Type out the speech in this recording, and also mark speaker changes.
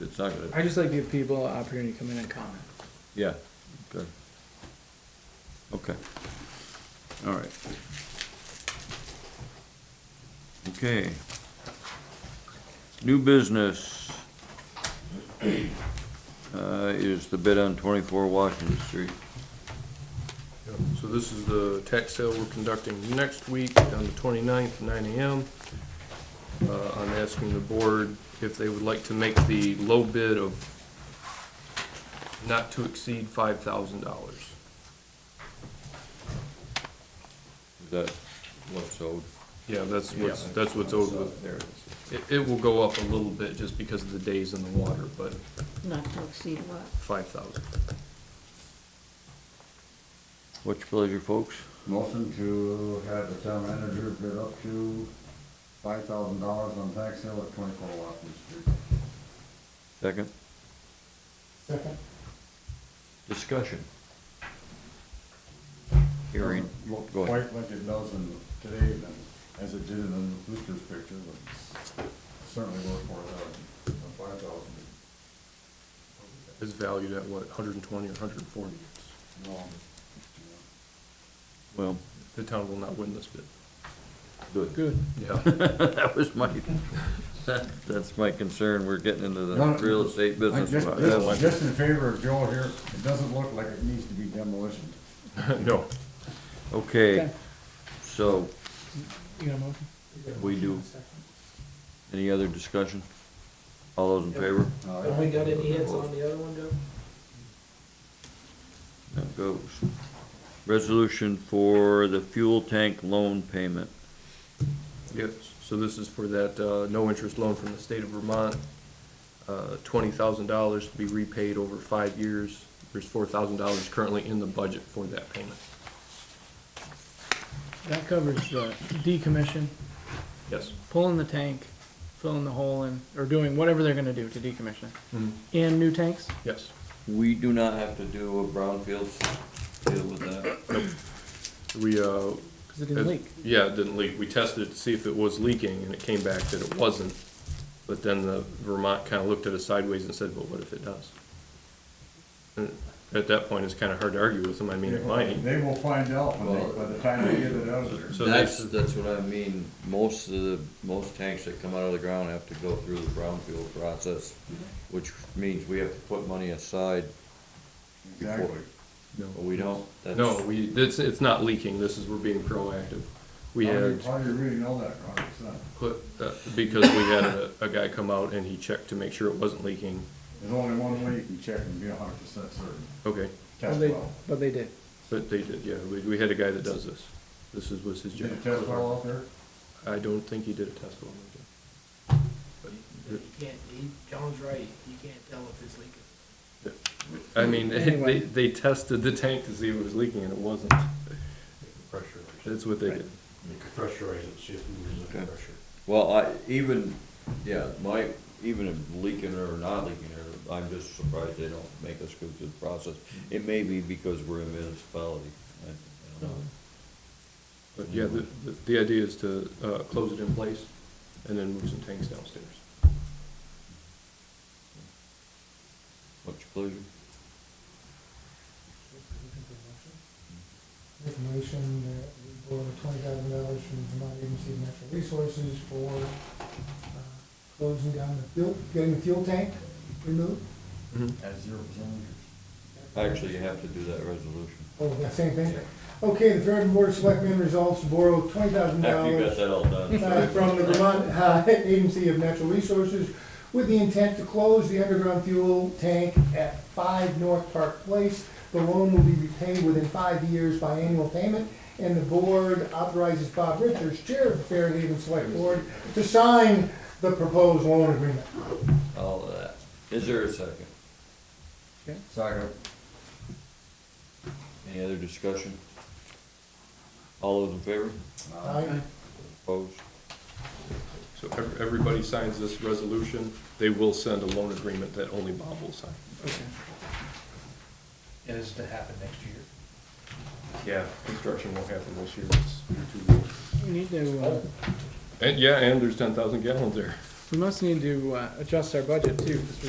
Speaker 1: it's not gonna,
Speaker 2: I just like to give people an opportunity to come in and comment.
Speaker 1: yeah, good. Okay, all right. Okay. New business uh, is the bid on twenty-four Washington Street.
Speaker 3: Yep, So this is the tax sale we're conducting next week on the 29th, nine AM. Uh, I'm asking the board if they would like to make the low bid of not to exceed $5,000.
Speaker 1: Is that what's owed?
Speaker 3: Yeah, that's what's, that's what's owed with.
Speaker 1: There it is.
Speaker 3: It, it will go up a little bit just because of the days in the water, but
Speaker 4: Not to exceed what?
Speaker 3: 5,000.
Speaker 1: What's your pleasure, folks?
Speaker 5: Motion to have the town manager bid up to five thousand dollars on tax sale at twenty-four Watkins Street.
Speaker 1: Second? Second. Discussion. Hearing,
Speaker 5: Doesn't Look
Speaker 1: go ahead.
Speaker 5: quite like it does in today than as it did in the Brewster's picture, but certainly worth four thousand, five thousand.
Speaker 3: It's valued at what, 120 or 140?
Speaker 1: Well,
Speaker 3: The town will not win this bid.
Speaker 1: good.
Speaker 2: Good.
Speaker 3: Yeah,
Speaker 1: That was my, that, that's my concern. We're getting into the
Speaker 5: Not-
Speaker 1: real estate
Speaker 5: I
Speaker 1: business. about that one.
Speaker 5: just, just in favor of Joel here, it doesn't look like it needs to be demolition.
Speaker 3: no.
Speaker 1: Okay,
Speaker 2: Okay.
Speaker 1: so
Speaker 2: You got a motion?
Speaker 1: we do, any other discussion? All those in favor?
Speaker 5: Uh,
Speaker 6: Have we got any hits on the other one, Joe?
Speaker 1: That goes. Resolution for the fuel tank loan payment.
Speaker 3: Yes, so this is for that uh, no-interest loan from the state of Vermont, uh, $20,000 to be repaid over five years. There's $4,000 currently in the budget for that payment.
Speaker 2: That covers the decommission,
Speaker 3: Yes.
Speaker 2: pulling the tank, filling the hole in, or doing whatever they're gonna do to decommission it. And new tanks?
Speaker 3: Yes.
Speaker 1: We do not have to do a brownfield deal with that.
Speaker 3: We, uh,
Speaker 2: Cause it didn't leak.
Speaker 3: yeah, it didn't leak. We tested it to see if it was leaking, and it came back that it wasn't. But then the Vermont kind of looked at us sideways and said, well, what if it does? And At that point, it's kind of hard to argue with them. I mean, it might.
Speaker 5: They will find out when they, by the time they get it out of there.
Speaker 3: So
Speaker 1: That's,
Speaker 3: this is-
Speaker 1: that's what I mean, most of the, most tanks that come out of the ground have to go through the brownfield process, which means we have to put money aside. before-
Speaker 5: Exactly.
Speaker 1: But We don't, that's.
Speaker 3: No, we, it's, it's not leaking, this is, we're being proactive. We
Speaker 5: How do you-
Speaker 3: had
Speaker 5: How do you really know that, Rob? It's not,
Speaker 3: put, uh, because we had a, a guy come out and he checked to make sure it wasn't leaking.
Speaker 5: there's only one way you can check and be a hundred percent certain,
Speaker 3: Okay,
Speaker 2: But
Speaker 5: test
Speaker 2: they,
Speaker 5: well.
Speaker 2: but they did.
Speaker 3: but they did, yeah, we, we had a guy that does this. This is, was his
Speaker 5: Did you
Speaker 3: job.
Speaker 5: test well out there?
Speaker 3: I don't think he did a test well.
Speaker 6: You can't, he, John's right, you can't tell if it's leaking.
Speaker 3: I mean, they,
Speaker 2: Anyway.
Speaker 3: they tested the tank to see if it was leaking and it wasn't.
Speaker 7: pressurize it,
Speaker 3: That's what they did.
Speaker 7: you could pressurize it, see if it loses
Speaker 1: Okay.
Speaker 7: any pressure.
Speaker 1: Well, I, even, yeah, my, even if leaking or not leaking, or, I'm just surprised they don't make us go through the process. It may be because we're a municipality, I, I don't know.
Speaker 3: But yeah, the, the- the idea is to, uh, close it in place and then move some tanks downstairs.
Speaker 1: What's your pleasure?
Speaker 8: Make a motion that we borrow twenty thousand dollars from Vermont Agency of Natural Resources for uh, closing down the fuel, getting the fuel tank removed.
Speaker 5: At zero percent.
Speaker 1: Actually, you have to do that resolution.
Speaker 8: Oh, that same thing? Okay, the Fairhaven Board of Selectmen resolves to borrow twenty thousand
Speaker 1: After you got
Speaker 8: dollars
Speaker 1: that all done.
Speaker 8: uh, from the Vermont uh, Agency of Natural Resources with the intent to close the underground fuel tank at five North Park Place. The loan will be repaid within five years by annual payment, and the board authorizes Bob Richards, Chair of the Fairhaven Select Board, to sign the proposed loan agreement.
Speaker 1: All of that. Is there a second?
Speaker 5: Second.
Speaker 1: Any other discussion? All those in favor?
Speaker 8: Aye.
Speaker 1: Opposed?
Speaker 3: So ev- everybody signs this resolution, they will send a loan agreement that only Bob will sign.
Speaker 2: Okay.
Speaker 6: And is to happen next year?
Speaker 3: Yeah. Construction won't happen this year, it's too low.
Speaker 2: We need to, uh,
Speaker 1: Oh.
Speaker 3: And, yeah, and there's ten thousand gallons there.
Speaker 2: we must need to, uh, adjust our budget too, 'cause we